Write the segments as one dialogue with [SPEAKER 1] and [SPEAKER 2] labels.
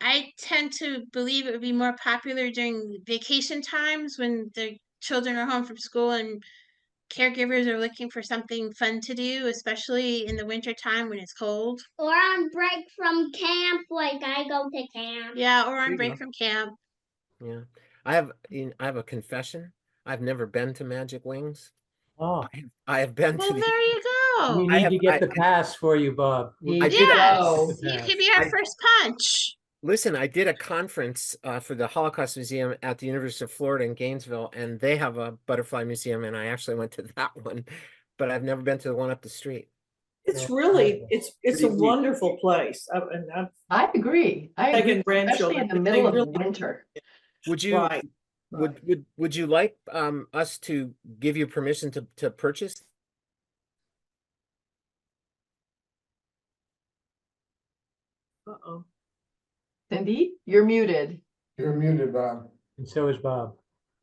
[SPEAKER 1] I tend to believe it would be more popular during vacation times when the children are home from school and caregivers are looking for something fun to do, especially in the winter time when it's cold.
[SPEAKER 2] Or on break from camp, like I go to camp.
[SPEAKER 1] Yeah, or
[SPEAKER 3] There
[SPEAKER 1] on
[SPEAKER 3] you
[SPEAKER 1] break
[SPEAKER 3] go.
[SPEAKER 1] from camp.
[SPEAKER 4] Yeah, I have. You know, I have a confession. I've never been to Magic Wings.
[SPEAKER 5] Oh,
[SPEAKER 4] I have, I have been
[SPEAKER 1] Well,
[SPEAKER 4] to. The,
[SPEAKER 1] there you
[SPEAKER 5] we
[SPEAKER 1] go.
[SPEAKER 4] Oh, I
[SPEAKER 5] need
[SPEAKER 4] have-
[SPEAKER 5] to
[SPEAKER 4] I-
[SPEAKER 5] get the pass for you, Bob. We-
[SPEAKER 4] I did
[SPEAKER 1] Yes,
[SPEAKER 5] Yeah.
[SPEAKER 1] you could be our
[SPEAKER 4] I-
[SPEAKER 1] first punch.
[SPEAKER 4] listen, I did a conference uh, for the Holocaust Museum at the University of Florida in Gainesville, and they have a butterfly museum, and I actually went to that one, but I've never been to the one up the street.
[SPEAKER 6] It's
[SPEAKER 5] Yeah.
[SPEAKER 6] really, it's, it's a
[SPEAKER 3] Pretty neat.
[SPEAKER 6] wonderful place. I- And I'm
[SPEAKER 7] I agree. I
[SPEAKER 6] taking
[SPEAKER 7] agree, especially
[SPEAKER 6] grandchildren.
[SPEAKER 7] in the
[SPEAKER 6] They
[SPEAKER 7] middle of the
[SPEAKER 6] really-
[SPEAKER 7] winter.
[SPEAKER 4] Would you?
[SPEAKER 6] right.
[SPEAKER 4] Would would would you like um us to give you permission to to purchase?
[SPEAKER 6] Uh-oh.
[SPEAKER 7] Cindy, you're muted.
[SPEAKER 8] You're muted, Bob.
[SPEAKER 5] And so is Bob.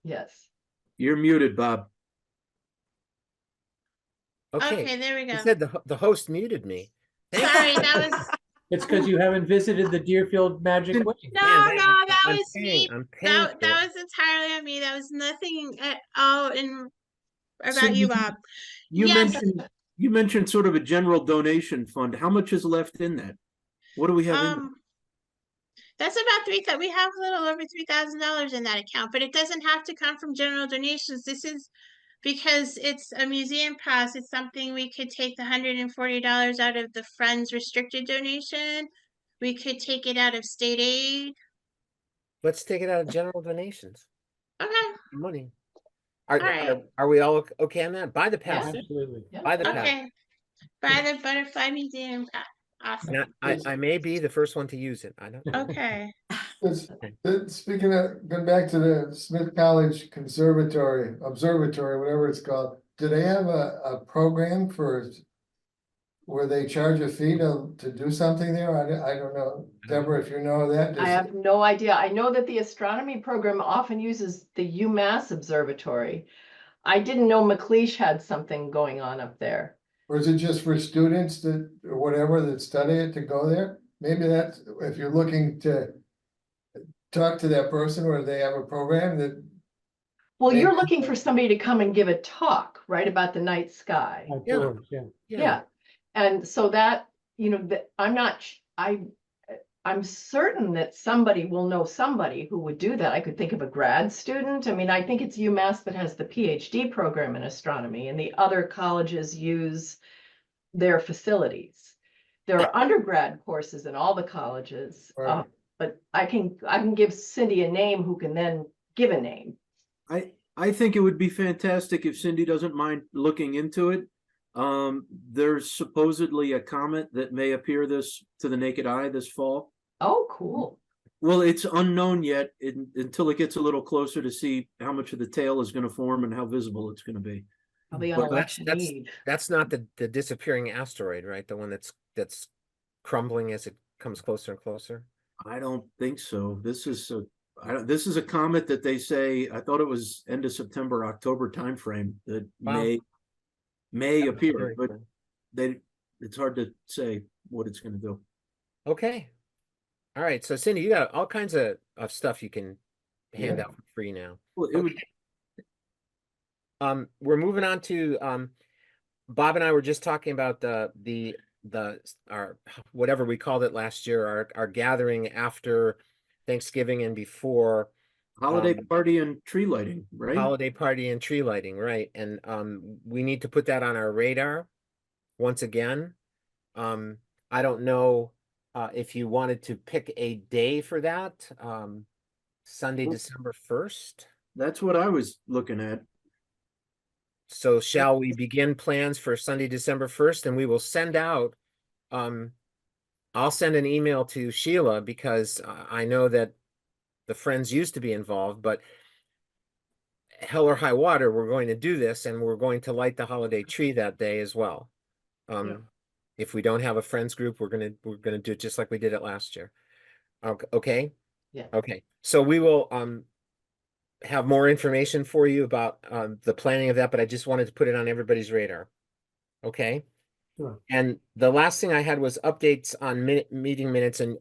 [SPEAKER 7] Yes.
[SPEAKER 3] You're muted, Bob.
[SPEAKER 1] Okay,
[SPEAKER 4] Okay,
[SPEAKER 1] there we
[SPEAKER 4] you
[SPEAKER 1] go.
[SPEAKER 4] said the ho- the host muted me. Thank you.
[SPEAKER 1] Sorry, that was,
[SPEAKER 5] It's because you haven't visited the Deerfield Magic Wings.
[SPEAKER 1] No,
[SPEAKER 4] Man,
[SPEAKER 1] no,
[SPEAKER 4] I'm-
[SPEAKER 1] that
[SPEAKER 4] I'm
[SPEAKER 1] was
[SPEAKER 4] paying-
[SPEAKER 1] me.
[SPEAKER 4] I'm paying
[SPEAKER 1] that,
[SPEAKER 4] for it.
[SPEAKER 1] that was entirely on me. That was nothing at all in about you,
[SPEAKER 3] you-
[SPEAKER 1] Bob.
[SPEAKER 3] You
[SPEAKER 1] Yes.
[SPEAKER 3] mentioned, you mentioned sort of a general donation fund. How much is left in that? What do we have? in there?
[SPEAKER 1] Um, that's about three that we have a little over three thousand dollars in that account, but it doesn't have to come from general donations. This is because it's a museum pass. It's something we could take the hundred and forty dollars out of the friends restricted donation. We could take it out of state aid.
[SPEAKER 4] Let's take it out of general donations,
[SPEAKER 1] Okay,
[SPEAKER 4] money. Are,
[SPEAKER 1] Alright.
[SPEAKER 4] are, are we all o- okay on that? Buy the pass,
[SPEAKER 5] Absolutely.
[SPEAKER 4] buy the pass.
[SPEAKER 1] okay. Buy the butterfly museum pass. Awesome.
[SPEAKER 4] Now, I, I may be the first one to use it. I don't.
[SPEAKER 1] Okay.
[SPEAKER 8] It's- uh, Speaking of, going back to the Smith College Conservatory, Observatory, whatever it's called, do they have a, a program for? Where they charge a fee to, to do something there? I, don't- I don't know. Deborah, if you know that.
[SPEAKER 7] I
[SPEAKER 8] does-
[SPEAKER 7] have no idea. I know that the astronomy program often uses the UMass Observatory. I didn't know McLeish had something going on up there.
[SPEAKER 8] Or is it just for students that, or whatever, that study it to go there? Maybe that's, if you're looking to. Talk to that person or they have a program that,
[SPEAKER 7] Well, you're
[SPEAKER 8] Yeah.
[SPEAKER 7] looking for somebody to come and give a talk, right, about the night sky.
[SPEAKER 5] Outdoors, yeah.
[SPEAKER 7] Yeah, and so that, you know, that, I'm not, sh- I, I'm certain that somebody will know somebody who would do that. I could think of a grad student. I mean, I think it's UMass that has the PhD program in astronomy and the other colleges use their facilities. There are undergrad courses in all the colleges, uh,
[SPEAKER 8] Right.
[SPEAKER 7] but I can, I can give Cindy a name who can then give a name.
[SPEAKER 3] I, I think it would be fantastic if Cindy doesn't mind looking into it. Um, there's supposedly a comet that may appear this, to the naked eye this fall.
[SPEAKER 7] Oh, cool.
[SPEAKER 3] Well, it's unknown yet in, until it gets a little closer to see how much of the tail is gonna form and how visible it's gonna be.
[SPEAKER 7] Probably on
[SPEAKER 4] Well, that's-
[SPEAKER 7] election
[SPEAKER 4] that's-
[SPEAKER 7] eve.
[SPEAKER 4] That's not the, the disappearing asteroid, right? The one that's, that's crumbling as it comes closer and closer.
[SPEAKER 3] I don't think so. This is a, I don't, this is a comet that they say, I thought it was end of September, October timeframe that
[SPEAKER 4] Wow.
[SPEAKER 3] may, may
[SPEAKER 4] That was
[SPEAKER 3] appear,
[SPEAKER 4] very
[SPEAKER 3] but
[SPEAKER 4] cool.
[SPEAKER 3] they, it's hard to say what it's gonna do.
[SPEAKER 4] Okay. All right. So Cindy, you got all kinds of, of stuff you can hand
[SPEAKER 8] Yeah.
[SPEAKER 4] out for free now.
[SPEAKER 3] Well, it would,
[SPEAKER 4] Um, we're moving on to, um, Bob and I were just talking about the, the, the, s- our, whatever we called it last year, our, our gathering after Thanksgiving and before
[SPEAKER 3] Holiday
[SPEAKER 4] Um,
[SPEAKER 3] party and tree lighting, right?
[SPEAKER 4] holiday party and tree lighting, right? And, um, we need to put that on our radar once again. Um, I don't know, uh, if you wanted to pick a day for that, um, Sunday,
[SPEAKER 3] Well-
[SPEAKER 4] December first.
[SPEAKER 3] That's what I was looking at.
[SPEAKER 4] So shall we begin plans for Sunday, December first, and we will send out, um, I'll send an email to Sheila because I I know that the Friends used to be involved, but hell or high water, we're going to do this and we're going to light the holiday tree that day as well. Um, if we don't have a Friends group, we're gonna, we're gonna do it just like we did it last year. Ok- Okay?
[SPEAKER 7] Yeah.
[SPEAKER 4] Okay, so we will, um, have more information for you about um, the planning of that, but I just wanted to put it on everybody's radar. Okay?
[SPEAKER 5] Sure.
[SPEAKER 4] And the last thing I had was updates on minute, meeting minutes and